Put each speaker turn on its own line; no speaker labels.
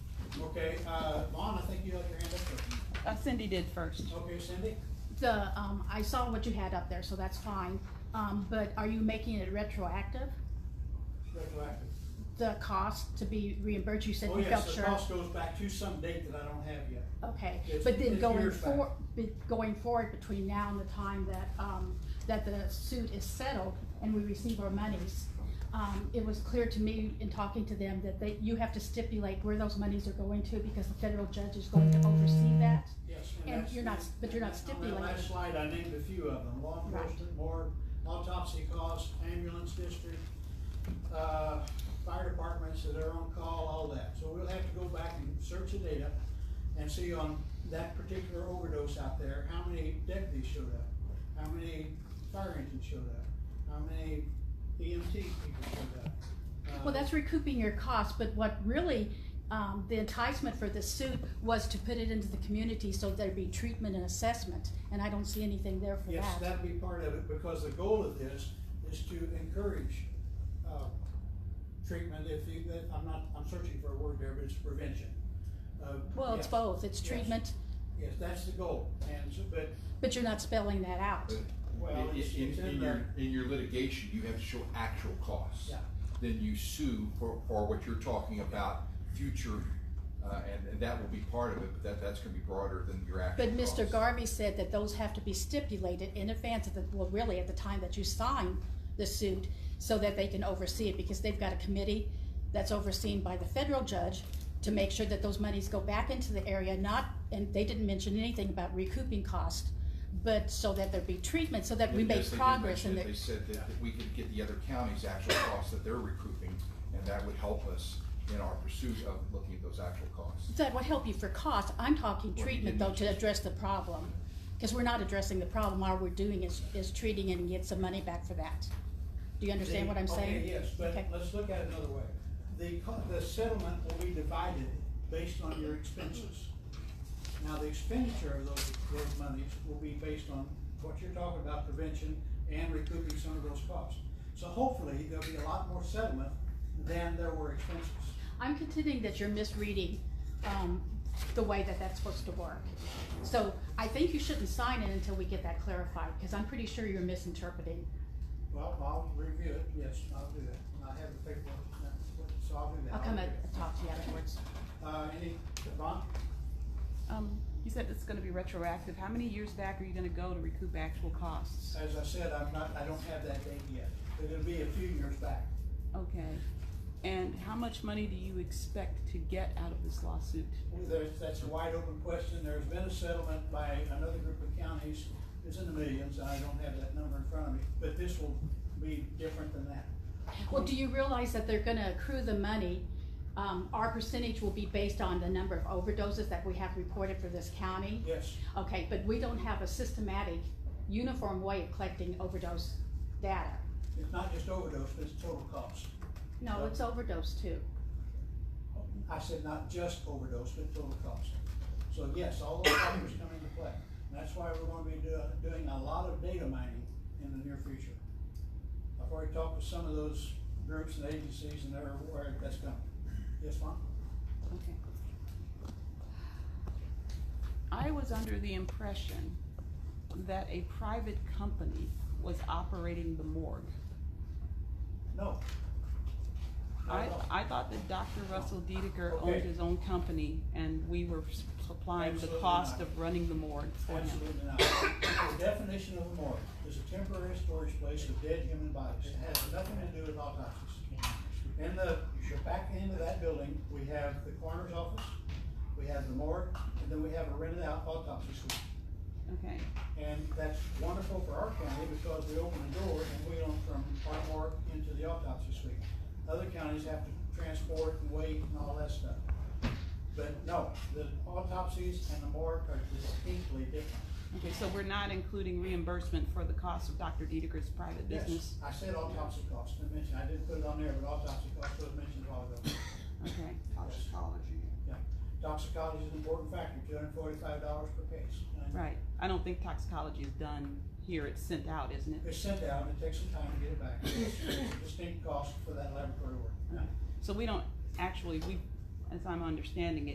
Okay, uh, Lon, I think you have your hand up
Uh, Cindy did first.
first. Okay, Cindy?
The, um, I saw what you had up there, so that's fine, um, but are you making it retroactive?
Retroactive.
The cost to be reimbursed, you said
Oh,
you
yes,
felt
the
sure?
cost goes back to some date that I don't have yet.
Okay,
It's-
but then
it's
going
years back.
for, be- going forward between now and the time that, um, that the suit is settled and we receive our monies, um, it was clear to me in talking to them that they, you have to stipulate where those monies are going to because the federal judge is going to oversee that.
Yes.
And
that's-
you're not- but you're not
On
stipulating.
that last slide, I named a few of them, law
Right.
enforcement, board, autopsy costs, ambulance district, uh, fire departments that are on call, all that. So we'll have to go back and search the data and see on that particular overdose out there, how many deputies showed up? How many fire engines showed up? How many EMT people showed up? Uh,
Well, that's recouping your costs, but what really, um, the enticement for this suit was to put it into the community so there'd be treatment and assessment, and I don't see anything there for
Yes,
that.
that'd be part of it, because the goal of this is to encourage, uh, treatment, if you, that, I'm not, I'm searching for a word there, but it's prevention. Uh,
Well, it's
yes,
both, it's
Yes.
treatment,
Yes, that's the goal, and so, but,
but you're not spelling that out.
But
Well,
in-
it's-
in-
it's
in
in
your-
there.
In your litigation, you have to show actual costs.
Yeah.
Then you sue for, for what you're talking about, future, uh, and, and that will be part of it, but that, that's gonna be broader than your actual
But Mr.
costs.
Garvey said that those have to be stipulated in advance of the, well, really at the time that you sign the suit, so that they can oversee it, because they've got a committee that's overseen by the federal judge to make sure that those monies go back into the area, not, and they didn't mention anything about recouping cost, but so that there be treatment, so that we
Yes, they
make
did
progress
mention
and
it.
that,
They said that, that we could get the other counties' actual costs that they're recouping, and that would help us in our pursuit of looking at those actual costs.
that would help you for cost. I'm talking
Well, you
treatment though
didn't
to address the problem, because we're not addressing the problem, all we're doing is, is treating it and get some money back for that. Do you understand what I'm
Okay,
saying?
yes, but
Okay.
let's look at it another way. The, co- the settlement will be divided based on your expenses. Now, the expenditure of those, those monies will be based on what you're talking about, prevention and recouping some of those costs. So hopefully, there'll be a lot more settlement than there were expenses.
I'm contending that you're misreading um, the way that that's supposed to work. So I think you shouldn't sign it until we get that clarified, because I'm pretty sure you're misinterpreting.
Well, I'll review it, yes, I'll do that. And I have the paperwork, so I'll do that.
I'll come
do
and
that.
talk to you afterwards.
Uh, any, Devon?
Um, you said it's gonna be retroactive. How many years back are you gonna go to recoup actual costs?
As I said, I'm not, I don't have that date yet, but it'll be a few years back.
Okay. And how much money do you expect to get out of this lawsuit?
There's, that's a wide open question. There's been a settlement by another group of counties. It's in the millions. I don't have that number in front of me, but this will be different than that.
Well, do you realize that they're gonna accrue the money? Um, Our percentage will be based on the number of overdoses that we have reported for this county.
Yes,
Okay, but we don't have a systematic, uniform way of collecting overdose data.
it's not just overdose, but it's total cost.
No, it's overdose too.
I said not just overdose, but total cost. So yes, all those factors come into play. And that's why we're gonna be do- doing a lot of data mining in the near future. I've already talked with some of those groups and agencies and they're aware that's coming. Yes, Lon?
Okay. I was under the impression that a private company was operating the morgue.
No. Not
I,
at all.
I thought that Dr. Russell Dedeker
Okay.
owned his own company and we were supplying the
Absolutely
cost
not.
of running the morgue for him.
Absolutely not. The definition of a morgue is a temporary storage place of dead human bodies. It has nothing to do with autopsies. In the, the back end of that building, we have the coroner's office, we have the morgue, and then we have a rented out autopsy suite.
Okay,
And that's wonderful for our county because we open the door and we own from our morgue into the autopsy suite. Other counties have to transport and wait and all that stuff. But no, the autopsies and the morgue are distinctly different.
okay, so we're not including reimbursement for the cost of Dr. Dedeker's private
Yes,
business?
I said autopsy cost, I mentioned, I didn't put it on there, but autopsy cost was mentioned a while ago.
Okay,
toxicology.
Yeah, toxicology is an important factor, two hundred and forty-five dollars per case. And
right. I don't think toxicology is done here, it's sent out, isn't it?
It's sent out, and it takes some time to get it back, It's a distinct cost for that laboratory work.
So we don't actually, we, as I'm understanding it.